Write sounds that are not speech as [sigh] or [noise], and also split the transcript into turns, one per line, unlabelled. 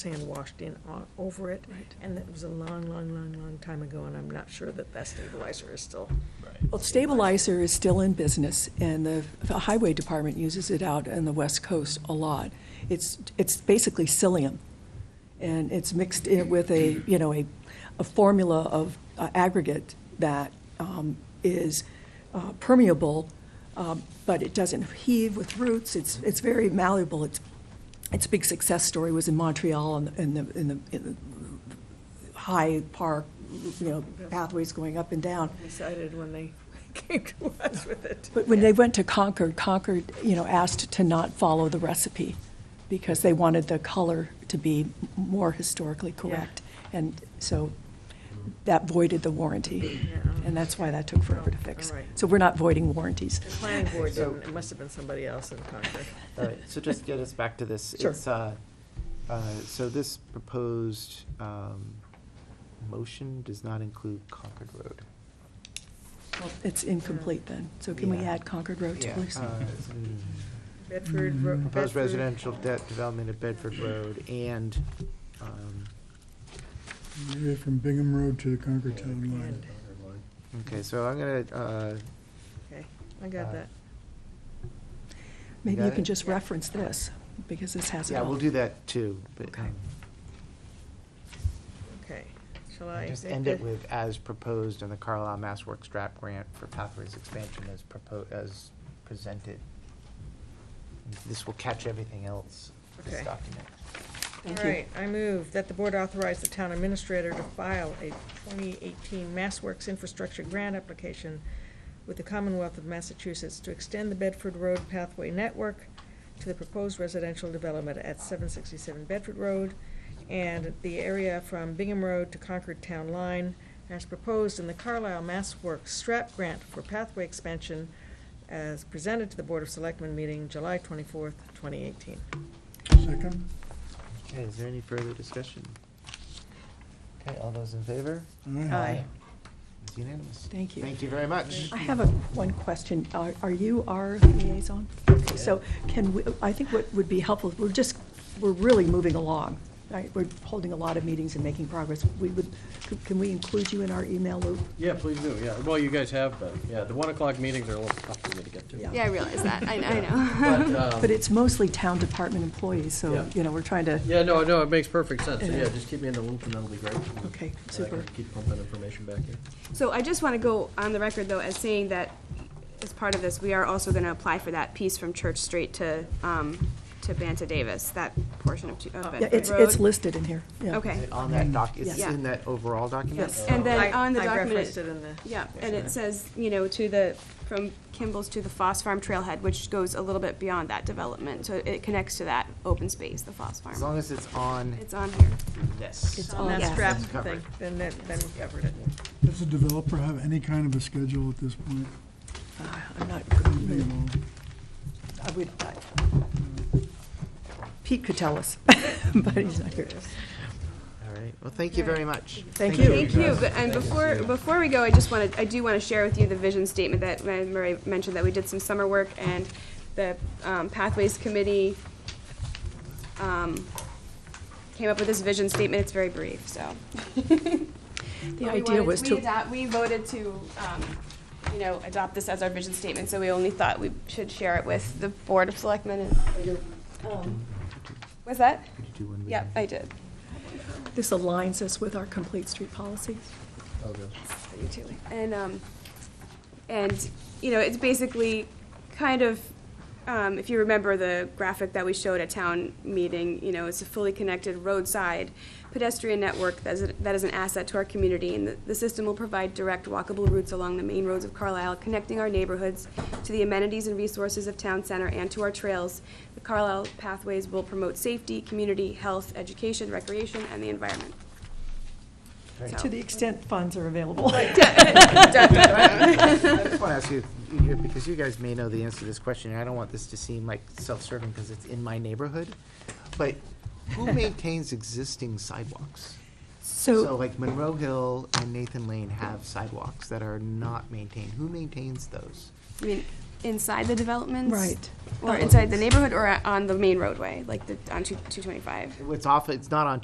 sand washed in o- over it.
Right.
And that was a long, long, long, long time ago, and I'm not sure that that stabilizer is still.
Well, stabilizer is still in business, and the the highway department uses it out on the west coast a lot. It's, it's basically psyllium, and it's mixed in with a, you know, a, a formula of uh, aggregate that um, is uh, permeable, um, but it doesn't heave with roots, it's, it's very malleable. It's, its big success story was in Montreal and the, and the, in the- in the high park, you know, pathways going up and down.
Decided when they [laughs] came to us with it.
But when they went to Concord, Concord, you know, asked to not follow the recipe because they wanted the color to be more historically correct. And so that voided the warranty. And that's why that took forever to fix.
All right.
So we're not voiding warranties.
The planning board
So-
didn't, it must have been somebody else in Concord.
All right, so just get us back to this.
Sure.
It's, uh, uh, so this proposed, um, motion does not include Concord Road.
It's incomplete then. So can we
Yeah.
add Concord Road to
Yeah,
please?
uh, it's in
Bedford. Ro-
Proposed
Bedford-
residential debt development at Bedford Road and, um,
Maybe from Bingham Road to the Concord Town Line.
And,
okay, so I'm gonna, uh,
okay, I got that.
Maybe
got
you
it?
can just reference this because this has it
yeah,
all.
we'll do that too. but,
Okay.
um,
Okay, shall I?
Just end it with as proposed in the Carlisle Mass Works draft grant for pathways expansion as proposed, as presented. This will catch everything else, this
Okay.
document.
All
Thank you.
right, I move that the board authorize the town administrator to file a 2018 MassWorks Infrastructure Grant application with the Commonwealth of Massachusetts to extend the Bedford Road Pathway Network to the proposed residential development at 767 Bedford Road and the area from Bingham Road to Concord Town Line as proposed in the Carlisle MassWorks STRAP Grant for pathway expansion as presented to the Board of Selectmen meeting July 24th, 2018.
Second?
Okay, is there any further discussion? Okay, all those in favor?
Aye.
It's unanimous.
Thank you.
Thank you very much.
I have a, one question. Are are you our liaison? Okay, So can we, I think what would be helpful, we're just, we're really moving along. right? We're holding a lot of meetings and making progress. We would, can we include you in our email loop?
Yeah, please do, yeah. Well, you guys have been, yeah. The one o'clock meetings are a little tough for me to get to.
Yeah.
Yeah, I realize that. I, I
[laughs]
But,
know.
um,
But it's mostly town department employees, so,
Yeah.
you know, we're trying to,
Yeah, no, no, it makes perfect sense. So, yeah, just keep me in the loop and that'll be great. And
Okay,
I can
super.
Keep pumping information back in.
So I just want to go on the record, though, as saying that as part of this, we are also going to apply for that piece from Church Street to, um, to Banta Davis, that portion of, Tu- of
yeah,
Bedford
it's, it's
Road.
listed in here. yeah.
Okay.
On that doc, is this
Yeah.
in that overall document?
Yes.
And then
I-
on the
I
document.
referenced it in the-
Yeah, and it says, you know, to the, from Kimball's to the Foss Farm Trailhead, which goes a little bit beyond that development. So it connects to that open space, the Foss
Oh. As
Farm.
long as it's on
It's on here.
this.
It's
On
all
that
Yes.
strap
that.
It's
thing,
covered.
then, that- then we covered it.
Does the developer have any kind of a schedule at this point?
Uh, I'm not,
Not at all.
I would, I- Pete could tell us, [laughs] but he's not here.
All right, well, thank you very much.
Thank you.
Thank you, but, and before, before we go, I just wanted, I do want to share with you the vision statement that Murray mentioned, that we did some summer work, and the um, Pathways Committee um, came up with this vision statement, it's very brief, so.
The
But we
idea
wanted-
was
we
to.
adopt- We voted to, um, you know, adopt this as our vision statement, so we only thought we should share it with the Board of Selectmen and, um, was that?
Could you do one?
Yep, I did.
This aligns us with our complete street policy.
You too. And, um, and, you know, it's basically kind of, um, if you remember the graphic that we showed at town meeting, you know, it's a fully connected roadside pedestrian network that is, that is an asset to our community. And the, the system will provide direct walkable routes along the main roads of Carlisle, connecting our neighborhoods to the amenities and resources of town center and to our trails. The Carlisle pathways will promote safety, community, health, education, recreation, and the environment.
To the extent funds are available.
I just want to ask you, you- because you guys may know the answer to this question, and I don't want this to seem like self-serving because it's in my neighborhood, but who maintains existing sidewalks? So
So
like Monroe Hill and Nathan Lane have sidewalks that are not maintained. Who maintains those?
I mean, inside the developments.
Right.
Or inside the neighborhood or on the main roadway, like the, on two, two twenty-five.
It's off, it's not on